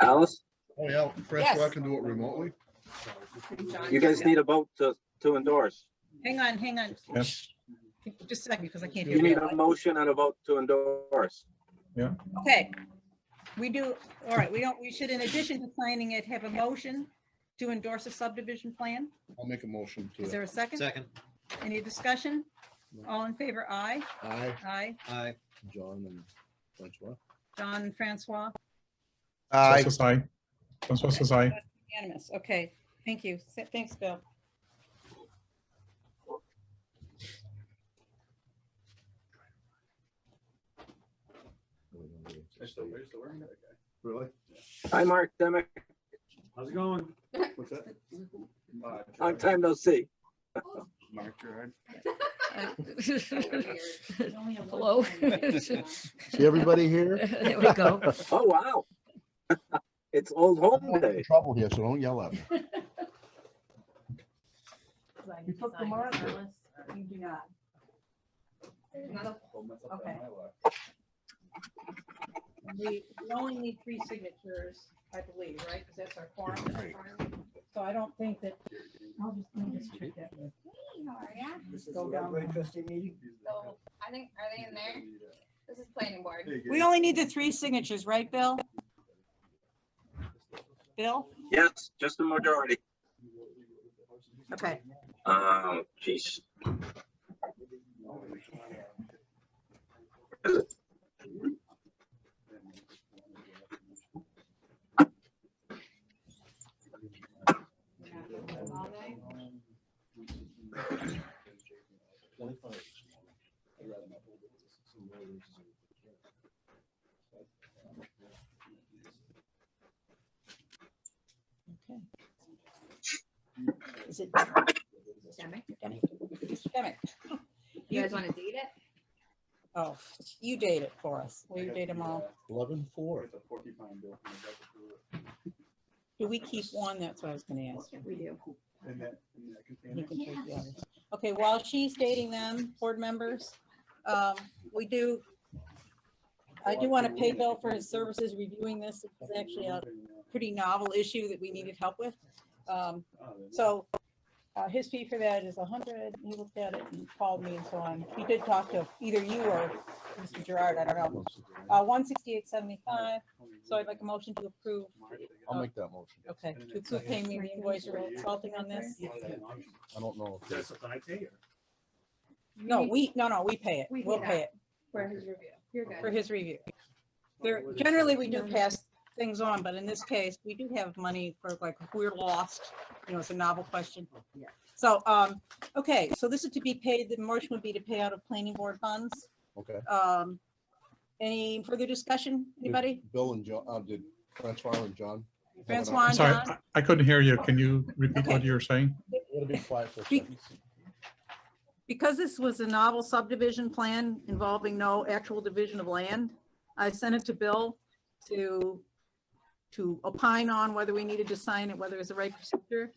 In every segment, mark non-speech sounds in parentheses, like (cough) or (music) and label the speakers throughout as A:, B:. A: Alice,
B: Oh, yeah,
C: Yes.
B: Francois can do it remotely.
A: you guys need a vote to, to endorse.
C: Hang on, hang on. Just a second, because I can't
A: You
C: hear
A: need
C: you.
A: a motion and a vote to endorse.
C: Okay. We do, all right, we don't, we should, in addition to signing it, have a motion to endorse a subdivision plan.
B: I'll make a motion
C: Is
B: to,
C: there a second?
D: Second,
C: Any discussion? All in favor, aye.
B: I,
C: Aye.
D: aye.
B: John and Francois.
C: John and Francois,
E: Aye.
F: Says aye. Francois says aye.
C: unanimous. Okay, thank you. Th- Thanks, Bill.
B: Really?
A: Hi, Mark Demick,
G: How's it going?
B: What's that?
A: long time no see.
B: Mark Gerard.
H: (laughs)
I: Hello.
E: See
I: (laughs)
E: everybody
C: (laughs)
E: here?
I: There we
B: (laughs)
I: go.
A: Oh, wow. (laughs) It's old home
B: I'm in
A: day.
B: trouble here, so don't yell at me.
H: You took the marker. You do not.
C: Okay. We we only need three signatures, I believe, right? Because that's our quorum. So I don't think that,
H: I'll just, I'll just check that. with- Go down.
J: So, I think, are they in there? This is planning board.
C: we only need the three signatures, right, Bill? Bill?
A: Yes, just a majority.
C: Okay.
A: Um, geez.
H: Is it Demick?
C: Demick.
J: You guys want to date it?
C: Oh, you date it for us. Will you date them all?
E: Eleven four.
C: Do we keep one? That's what I was gonna ask.
H: We do.
C: You can take the others. Okay, while she's dating them, board members, um, we do, I do want to pay Bill for his services reviewing this. It's actually a pretty novel issue that we needed help with. Um, So uh, his fee for that is a hundred. He looked at it and called me and so on. He did talk to either you or Mr. Gerard, I don't know. Uh, one sixty-eight seventy-five, so I'd like a motion to approve,
B: I'll make that motion.
C: okay, to approve paying me the invoice or consulting on this.
B: I don't know. if
G: That's what I tell you.
C: No, we, no, no, we pay it.
H: We
C: We'll
H: pay
C: pay it.
H: For his review. You're
C: for
H: good.
C: his review. There, generally, we do pass things on, but in this case, we do have money for like, if we're lost, you know, it's a novel question.
H: Yeah.
C: So, um, okay, so this is to be paid, the motion would be to pay out of planning board funds.
B: Okay.
C: Um, any further discussion, anybody?
B: Did Bill and John, uh, did Francois and John? have an
C: Francois
B: option?
F: I'm sorry, I- I couldn't hear you. Can you repeat what
C: Okay.
F: you were saying?
B: It'll be quiet for a
C: Be-
B: second.
C: Because this was a novel subdivision plan involving no actual division of land, I sent it to Bill to, to opine on whether we needed to sign it, whether it's the right procedure.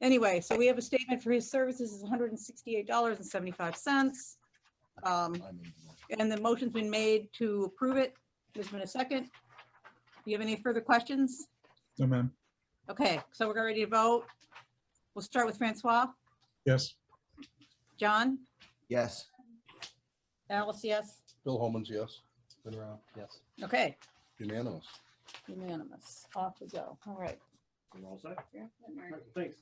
C: Anyway, so we have a statement for his services is hundred and sixty-eight dollars and seventy-five cents. Um,
B: I made the motion.
C: and the motion's been made to approve it. There's been a second. Do you have any further questions?
F: No, ma'am.
C: Okay, so we're ready to vote. We'll start with Francois.
F: Yes.
C: John?
E: Yes.
C: Alice, yes?
B: Bill Holman's, yes,
D: Been around, yes.
C: Okay.
B: unanimous.
C: Unanimous. Off we go. All right.
G: We're all set.
J: Mark.
G: Thanks.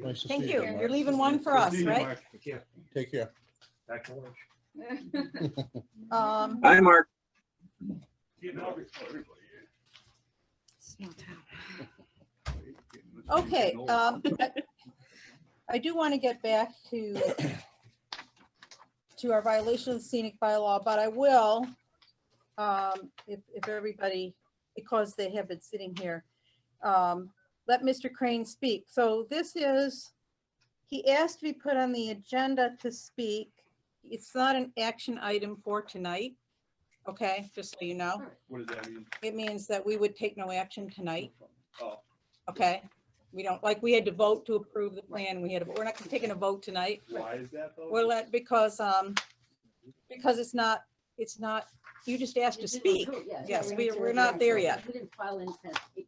B: Nice to
C: Thank
B: see
C: you.
B: Mark.
C: You're leaving one for us, right?
D: Yeah.
B: Take care.
G: Back to lunch.
C: Um,
A: Hi, Mark.
G: See you now, everybody.
H: Small town.
C: okay, um, I- I do want to get back to to our violation of the scenic bylaw, but I will, um, if, if everybody, because they have been sitting here, um, let Mr. Crane speak. So this is, he asked to be put on the agenda to speak. It's not an action item for tonight. Okay, just so you know.
G: What does that mean?
C: It means that we would take no action tonight.
G: Oh.
C: Okay, we don't, like, we had to vote to approve the plan, we had, to- we're not taking a vote tonight.
G: Why is that though?
C: We're let, because, um, because it's not, it's not, you just asked to speak. Yes, we- we're not there yet.
H: We didn't file in,